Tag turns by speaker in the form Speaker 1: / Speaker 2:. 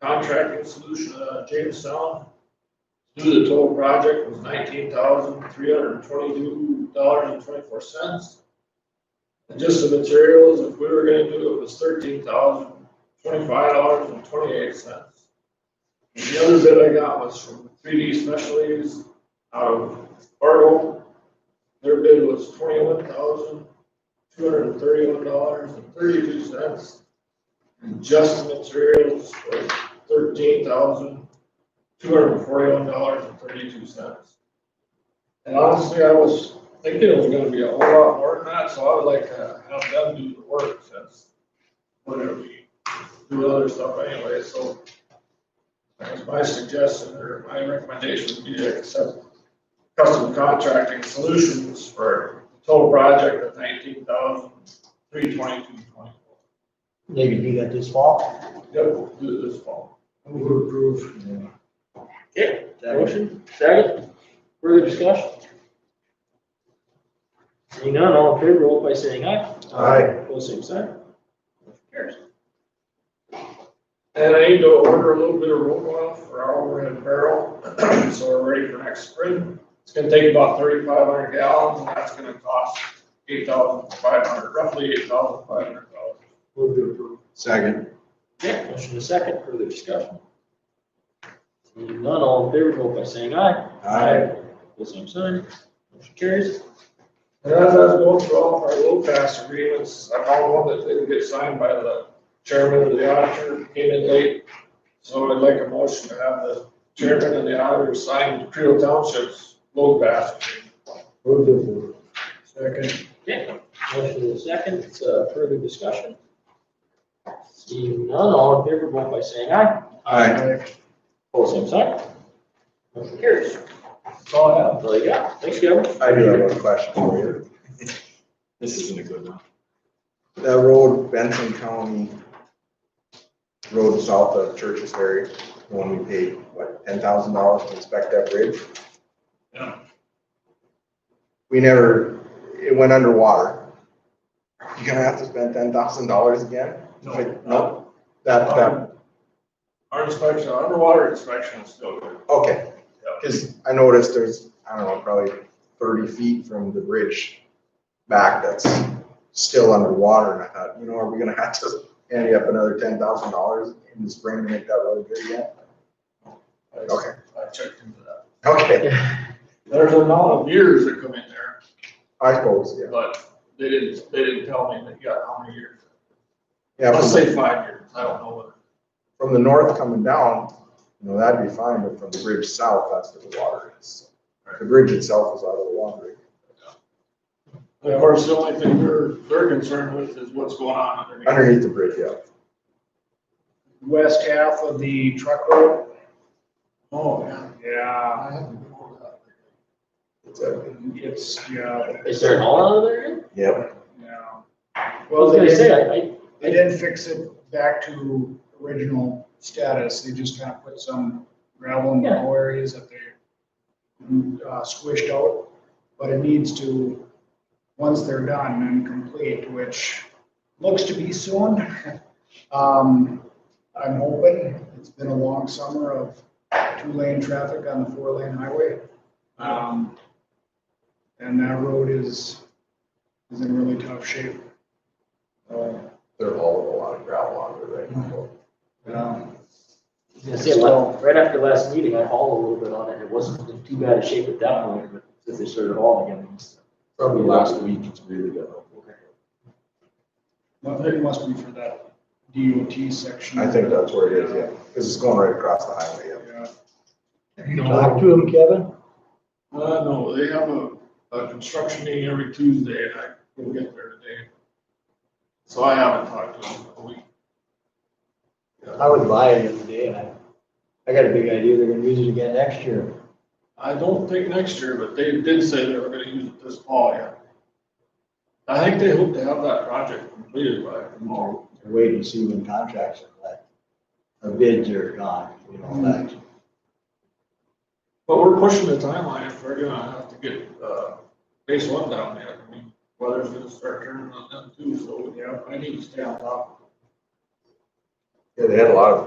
Speaker 1: Contracting solution, uh, Jamestown. Do the total project was nineteen thousand, three hundred and twenty-two dollars and twenty-four cents. And just the materials, if we were gonna do it, was thirteen thousand, twenty-five dollars and twenty-eight cents. The other bid I got was from three D Specialties out of Fargo. Their bid was twenty-one thousand, two hundred and thirty-one dollars and thirty-two cents. And just the materials was thirteen thousand, two hundred and forty-one dollars and thirty-two cents. And honestly, I was thinking it was gonna be a whole lot more than that, so I would like to have them do the work since we're gonna be doing other stuff anyway, so. That was my suggestion or my recommendation would be to accept custom contracting solutions for total project of nineteen thousand, three twenty-two twenty-four.
Speaker 2: They can do that this fall.
Speaker 1: Yep, we'll do it this fall.
Speaker 2: Move approve.
Speaker 3: Okay, motion, second, further discussion? Seeing none, all in favor, vote by saying aye.
Speaker 2: Aye.
Speaker 3: Pose same sign. Motion carries.
Speaker 1: And I need to order a little bit of rope oil for our overhead barrel, so we're ready for next spring. It's gonna take about thirty-five hundred gallons, and that's gonna cost eight thousand five hundred, roughly eight thousand five hundred dollars.
Speaker 3: Move to approve.
Speaker 4: Second.
Speaker 3: Okay, motion is second, further discussion? Seeing none, all in favor, vote by saying aye. Pose same sign. Motion carries.
Speaker 1: And as I was going through all of our low pass agreements, I found one that didn't get signed by the chairman of the auditor, came in late. So I'd like a motion to have the chairman and the auditor sign Creel Township's low pass.
Speaker 2: Move approve.
Speaker 1: Second.
Speaker 3: Okay, motion is second, it's uh, further discussion? Seeing none, all in favor, vote by saying aye.
Speaker 4: Aye.
Speaker 3: Pose same sign. Motion carries.
Speaker 1: That's all I have.
Speaker 3: That's all you got. Thanks, Kevin.
Speaker 4: I do have one question for you.
Speaker 5: This isn't a good one.
Speaker 4: That road, Benson County Road south of Church's Ferry, the one we paid, what, ten thousand dollars to inspect that bridge?
Speaker 1: Yeah.
Speaker 4: We never, it went underwater. You're gonna have to spend ten thousand dollars again?
Speaker 1: No.
Speaker 4: Nope. That, that,
Speaker 1: Um, Our inspection, our underwater inspection is still good.
Speaker 4: okay, cause I noticed there's, I don't know, probably thirty feet from the bridge back that's still underwater, and I thought, you know, are we gonna have to ante up another ten thousand dollars in the spring to make that road good again? Okay,
Speaker 1: I checked into that.
Speaker 4: okay,
Speaker 1: There's a lot of years that come in there,
Speaker 4: I suppose, yeah,
Speaker 1: but they didn't, they didn't tell me that, yeah, how many years.
Speaker 4: yeah,
Speaker 1: Let's
Speaker 4: from,
Speaker 1: say five years, I don't know what.
Speaker 4: from the north coming down, you know, that'd be fine, but from the bridge south, that's where the water is. The bridge itself is out of the water.
Speaker 1: Of course, the only thing they're, they're concerned with is what's going on underneath.
Speaker 4: underneath the bridge, yeah.
Speaker 2: West half of the truck road.
Speaker 1: Oh, yeah.
Speaker 2: Yeah,
Speaker 1: I haven't been over that.
Speaker 4: It's a,
Speaker 2: it's, yeah,
Speaker 3: Is there an all out of there?
Speaker 4: yeah,
Speaker 2: yeah.
Speaker 3: I was gonna say, I, I,
Speaker 2: They didn't fix it back to original status, they just kind of put some gravel in the
Speaker 3: Yeah.
Speaker 2: low areas that they uh, squished out, but it needs to, once they're done and complete, which looks to be soon. Um, I'm hoping, it's been a long summer of two-lane traffic on the four-lane highway. Um, and that road is, is in really tough shape. Uh,
Speaker 4: they're hauling a lot of gravel under there right now.
Speaker 2: um,
Speaker 3: I was gonna say, well, right after last meeting, I hauled a little bit on it, it wasn't in too bad a shape at that point, but since they started hauling again, it's.
Speaker 5: Probably last week, it's really good.
Speaker 2: Well, it must be for that DOT section.
Speaker 4: I think that's where it is, yeah, because it's going right across the highway, yeah.
Speaker 2: Yeah.
Speaker 1: Talk
Speaker 2: to him, Kevin?
Speaker 1: Uh, no, they have a, a construction meeting every Tuesday and I will get there today. So I haven't talked to them in a week.
Speaker 6: I was by it the other day and I, I got a big idea, they're gonna use it again next year.
Speaker 1: I don't think next year, but they did say they were gonna use it this fall, yeah. I think they hope to have that project completed by tomorrow.
Speaker 6: They're waiting to see when contracts are let, or bids are gone, you know, that.
Speaker 1: But we're pushing the timeline if we're gonna have to get, uh, phase one down yet. I mean, weather's gonna start turning on them too, so, yeah, I need to stay on top.
Speaker 4: Yeah, they had a lot of